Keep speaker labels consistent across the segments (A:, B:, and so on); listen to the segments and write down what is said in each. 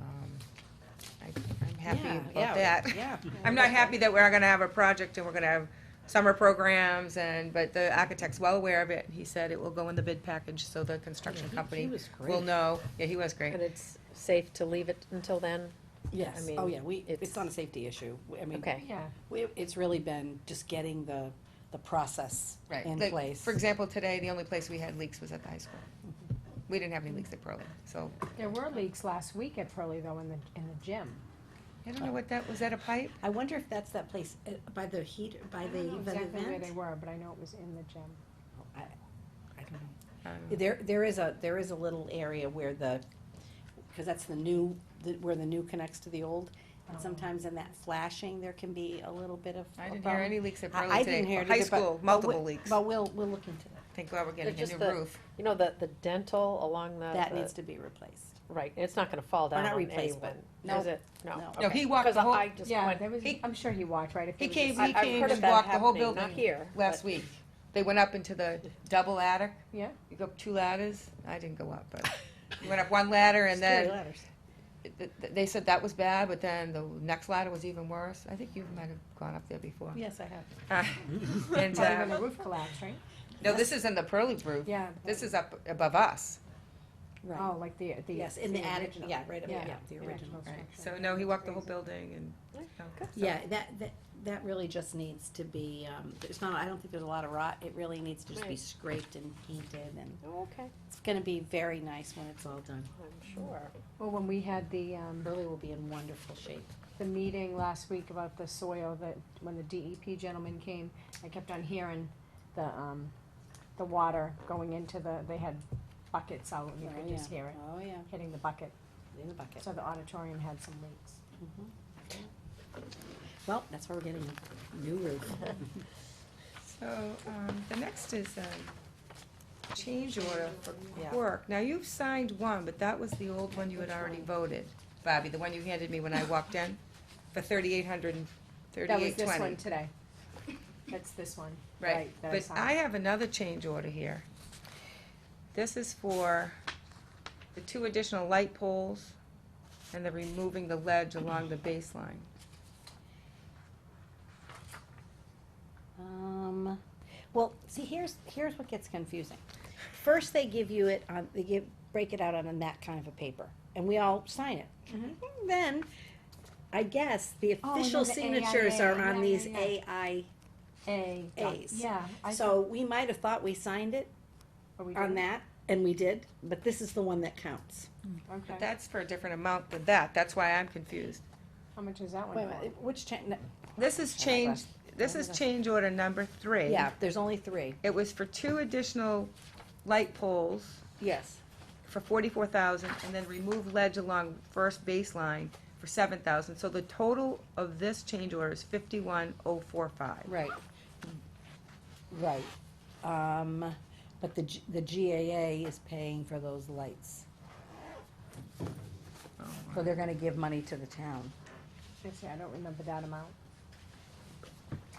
A: Um, happy
B: Yeah,
A: about
B: yeah,
A: that.
B: Yeah.
A: I'm not happy that we're gonna have a project and we're gonna have summer programs and, but the architect's well aware of it. He said it will go in the bid package, so the construction
B: Yeah, he- he
A: company
B: was
A: will
B: great.
A: know. Yeah, he was great.
C: And it's safe to leave it until then? I
B: Yes,
C: mean,
B: oh yeah, we,
C: it's-
B: it's not a safety issue, We- I mean.
C: Okay.
D: Yeah.
B: we- It's really been just getting the, the process in
A: Like,
B: place.
A: For example, today, the only place we had leaks was at the high school.
B: Mm-hmm.
A: We didn't have any leaks at Pearlie, so
D: There were leaks last week at Pearlie though in the, in the gym.
A: I don't know what that, was that a pipe?
E: I wonder if that's that place, uh, by the heat, by
D: I
E: the,
D: don't know
E: the
D: exactly where
E: event?
D: they were, but I know it was in the gym.
B: I don't know.
A: I don't know.
B: There, there is a, there is a little area where the, because that's the new, the- where the new connects to the old.
E: Oh.
B: And sometimes in that flashing, there can be a little bit of.
A: I
B: a
A: didn't hear
B: bum.
A: any leaks at
B: Um, I-
A: Pearlie
B: I didn't
A: today.
B: hear
A: For
B: it
A: High
B: either, but-
A: school,
B: but
A: multiple
B: we-
A: leaks.
B: But we'll, we'll look into that.
A: Thank God we're getting a
C: just
A: new
C: the-
A: roof.
C: You know, the, the dental along the.
B: That
C: the-
B: needs to be replaced.
C: Right, it's not gonna fall down
B: not
C: on
B: replaceable.
C: anyone,
B: No.
C: is it? No.
B: No.
A: No,
C: okay.
A: he walked
C: Because
A: the whole-
C: I just
D: Yeah,
C: went-
D: there was,
A: He-
D: I'm sure he watched, right? If
A: He
D: it was
A: came,
D: just-
A: he
C: I- I've
A: came
C: heard
A: and
C: of that
A: walked the whole
C: happening,
A: building.
C: not here,
A: Last
C: but-
A: week. They went up into the double attic.
D: Yeah.
A: You go up two ladders. I didn't go up, but you went up one ladder and then th- th- they said that was bad, but then the next ladder was even worse. I think you might have gone up there before.
B: Yes, I have.
A: Uh, And,
D: Probably when
A: uh,
D: the roof collapsed, right?
A: no, this is in the Pearly roof.
D: Yeah.
A: This is up above us.
B: Right,
D: Oh, like the, the.
B: yes, in the attic,
D: original.
B: yeah, right, up-
D: Yeah.
B: yeah, the original.
A: Right.
D: structure.
A: So no, he walked the whole building and.
B: Yeah, that, that, that really just needs to be, um, there's not, I don't think there's a lot of rot, it really needs to just be
C: Right.
B: scraped and painted, and
C: Oh, Okay,
B: it's gonna be very nice when it's all done.
C: I'm sure.
D: Well, when we had the, um,
B: Burley will be in wonderful shape.
D: the meeting last week about the soil that, when the DEP gentleman came, I kept on hearing the, um, the water going into the, they had buckets out and you
B: Oh,
D: could
B: yeah.
D: just hear it,
B: Oh, yeah,
D: hitting the bucket.
B: in the bucket.
D: So the auditorium had some leaks.
B: Well, that's why we're getting a new roof.
A: So, um, the next is, um, change order for Quirk. Now, you've signed one, but that was the old one you had already voted, Bobby, the one you handed me when I walked in, for thirty-eight hundred and
D: That was
A: thirty-eight
D: this one
A: twenty.
D: today. That's this one.
A: Right,
D: that
A: but
D: signed.
A: I have another change order here. This is for the two additional light poles and the removing the ledge along the baseline.
B: Um, well, see, here's, here's what gets confusing. First, they give you it on, they give, break it out on that kind of a paper, and we all sign it. Then, I guess, the
D: Mm-hmm. Oh, and
B: official
D: then the
B: signatures
D: AIA,
B: are on
D: yeah,
B: these
D: yeah, yeah.
B: AI,
D: A. dot-
B: A's.
D: Yeah. I
B: so we might have thought we signed it
D: thought- are we
B: on
D: doing-
B: that, and we did, but this is the one that counts.
A: But
D: Okay.
A: that's for a different amount than that, that's why I'm confused.
D: How much is that
B: Wait a
D: one for?
B: minute, which cha- no,
A: This
B: Oh
A: is change, this is change order number three.
B: yeah, there's only three,
A: It was for two additional light poles
B: yes.
A: for forty-four thousand, and then remove ledge along first baseline for seven thousand. So the total of this change order is fifty-one oh four five.
B: Right. Right. Um, but the, G- the GAA is paying for those lights. So they're gonna give money to the town.
D: Actually, I don't remember that amount.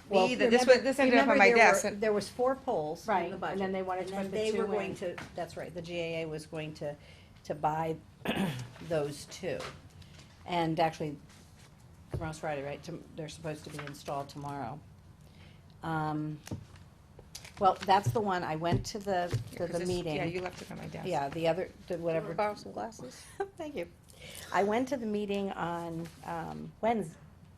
B: Well,
A: either. This
B: remember-
A: was- this ended up on
B: remember
A: my
B: there
A: desk
B: were-
A: and-
B: There was four poles
D: Right,
B: in the
D: and
B: budget.
D: then they wanted to
B: and
D: put
B: then
D: the
B: they were
D: two
B: going
D: in.
B: to- That's right, the GAA was going to, to buy those two. And actually, tomorrow's Friday, right, Tom- they're supposed to be installed tomorrow. Um, Well, that's the one, I went to the, to the meeting.
A: Yeah, you left it on my desk.
B: Yeah, the other, the whatever.
C: Borrow some glasses?
B: Thank you. I went to the meeting on, um, Wednes-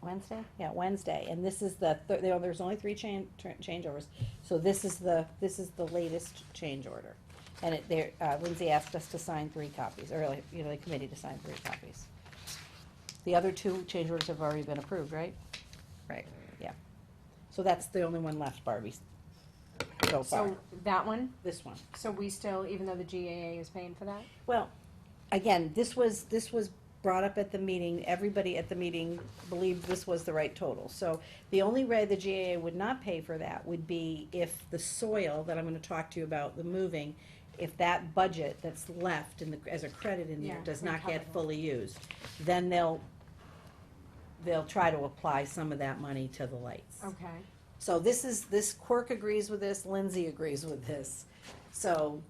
B: Wednesday? Yeah, Wednesday, and this is the, thir- there- there's only three change, changeovers. So this is the, this is the latest change order. And it, there, uh, Lindsay asked us to sign three copies, or like, you know, the committee to sign three copies. The other two change orders have already been approved, right?
A: Right.
B: So that's the only one left, Barbie, so far,
D: So that one,
B: this one.
D: so we still, even though the GAA is paying for that?
B: Well, again, this was, this was brought up at the meeting, everybody at the meeting believed this was the right total. So the only way the GAA would not pay for that would be if the soil that I'm gonna talk to you about, the moving, if that budget that's left in the, as a credit in there
D: Yeah,
B: does not
D: recover
B: get
D: that.
B: fully used, then they'll, they'll try to apply some of that money to the lights.
D: Okay.
B: So this is, this Quirk agrees with this, Lindsay agrees with this. So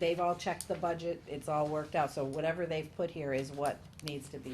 B: they've all checked the budget, it's all worked out, so whatever they've put here is what needs to be